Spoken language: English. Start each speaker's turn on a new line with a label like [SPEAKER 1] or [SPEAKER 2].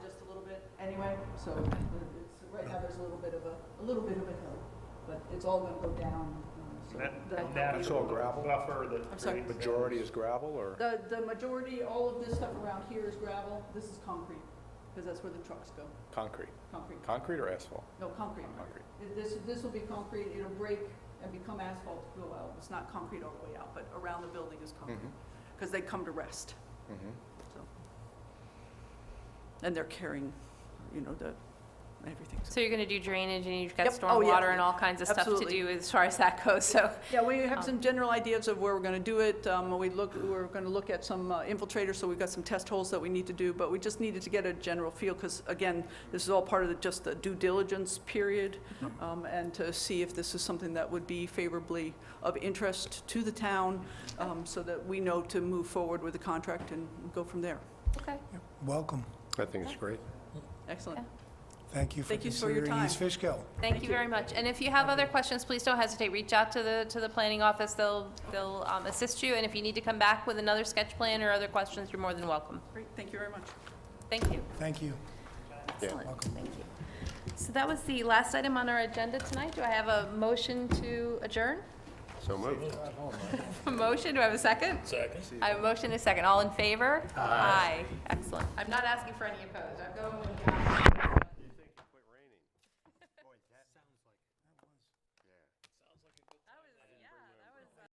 [SPEAKER 1] So it- it's, right now, there's a little bit of a, a little bit of a hill, but it's all gonna go down, uh, so.
[SPEAKER 2] That-
[SPEAKER 1] that'll
[SPEAKER 2] and that
[SPEAKER 1] help.
[SPEAKER 2] is
[SPEAKER 3] all
[SPEAKER 2] the
[SPEAKER 3] gravel?
[SPEAKER 2] Buffer that.
[SPEAKER 1] I'm sorry.
[SPEAKER 2] creates that.
[SPEAKER 3] Majority is gravel, or?
[SPEAKER 1] The, the majority, all of this stuff around here is gravel, this is concrete, because that's where the trucks go,
[SPEAKER 3] Concrete.
[SPEAKER 1] concrete,
[SPEAKER 3] Concrete or asphalt?
[SPEAKER 1] no, concrete.
[SPEAKER 3] Concrete.
[SPEAKER 1] Th- This, this will be concrete, it'll break and become asphalt to go out, it's not concrete all the way out, but around the building is concrete,
[SPEAKER 2] Mm-hmm.
[SPEAKER 3] Mhm,
[SPEAKER 1] because they come to rest,
[SPEAKER 3] mhm.
[SPEAKER 1] so. And they're carrying, you know, the, everything's
[SPEAKER 4] So you're going to do drainage and you've got
[SPEAKER 1] Yep. Oh, yeah.
[SPEAKER 4] stormwater and all kinds of stuff to
[SPEAKER 1] Absolutely.
[SPEAKER 4] do as far as that goes, so.
[SPEAKER 1] Yeah, we
[SPEAKER 4] Um,
[SPEAKER 1] have some general ideas of where we're going to do it. Um, We look, we're going to look at some uh, infiltrators, so we've got some test holes that we need to do, but we just needed to get a general feel, because again, this is all part of the, just the due diligence period, um, and to see if this is something that would be favorably of interest to the town, um, so that we know to move forward with the contract and go from there.
[SPEAKER 4] Okay.
[SPEAKER 5] Welcome.
[SPEAKER 3] I think it's great.
[SPEAKER 1] Excellent.
[SPEAKER 5] Thank you for
[SPEAKER 1] Thank you for your
[SPEAKER 5] considering East
[SPEAKER 1] time.
[SPEAKER 5] Fishkill.
[SPEAKER 4] Thank you very much. And if you have other questions, please don't hesitate. Reach out to the, to the planning office. They'll, they'll um, assist you. And if you need to come back with another sketch plan or other questions, you're more than welcome.
[SPEAKER 1] Great, thank you very much.
[SPEAKER 4] Thank you.
[SPEAKER 5] Thank you.
[SPEAKER 4] Excellent. Thank you. So that was the last item on our agenda tonight. Do I have a motion to adjourn?
[SPEAKER 3] So moved.
[SPEAKER 4] A motion? Do I have a second?
[SPEAKER 6] Second.
[SPEAKER 4] I have a motion and a second. All in favor? Aye. Excellent. I'm not asking for any opposed. I'm going with.